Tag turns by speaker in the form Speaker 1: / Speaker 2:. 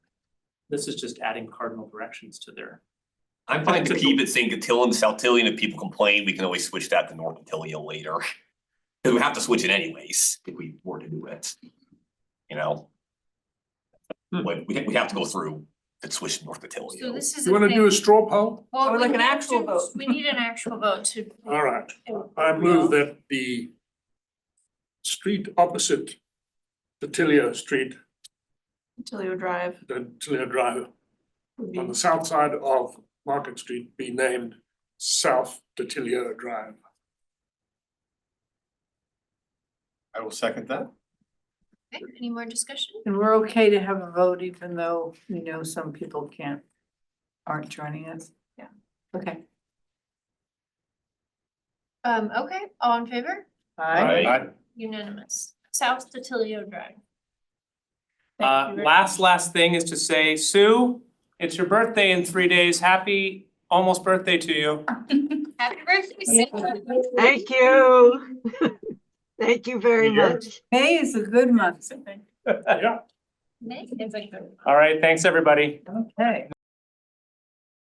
Speaker 1: This is just adding cardinal directions to their,
Speaker 2: I'm fine to
Speaker 1: Typical.
Speaker 2: keep it saying Cotillion, South Tillion, if people complain, we can always switch that to North Cotillion later. Cause we have to switch it anyways, if we were to do it. You know?
Speaker 1: Hmm.
Speaker 2: Like, we we have to go through and switch to North Cotillion.
Speaker 3: So this is
Speaker 4: You
Speaker 3: a
Speaker 4: wanna do
Speaker 3: thing,
Speaker 4: a straw poll?
Speaker 3: well,
Speaker 5: Or
Speaker 3: we
Speaker 5: like an
Speaker 3: have
Speaker 5: actual
Speaker 3: to-
Speaker 5: vote.
Speaker 3: we need an actual vote to.
Speaker 4: All right, I move that the street opposite the Tilio Street,
Speaker 5: Tilio Drive
Speaker 4: the Tilio Drive,
Speaker 5: would
Speaker 4: on
Speaker 5: be
Speaker 4: the south side of Market Street be named South Tilio Drive.
Speaker 6: I will second that.
Speaker 3: Okay, Any more discussion?
Speaker 5: And we're okay to have a vote even though we know some people can't, aren't joining us? Yeah. Okay.
Speaker 3: Um, okay, all in favor?
Speaker 5: Aye.
Speaker 6: I,
Speaker 3: Unanimous. South Totilio Drive.
Speaker 5: Thank
Speaker 1: uh,
Speaker 5: you very
Speaker 1: last, last thing is to say, Sue, it's your birthday in three days. Happy almost birthday to you.
Speaker 3: Happy birthday, Sarah.
Speaker 7: Thank you. Thank you very
Speaker 6: You're-
Speaker 7: much.
Speaker 5: May is a good month.
Speaker 4: Yeah.
Speaker 3: Nick, it's like the-
Speaker 1: All right, thanks, everybody.
Speaker 5: Okay.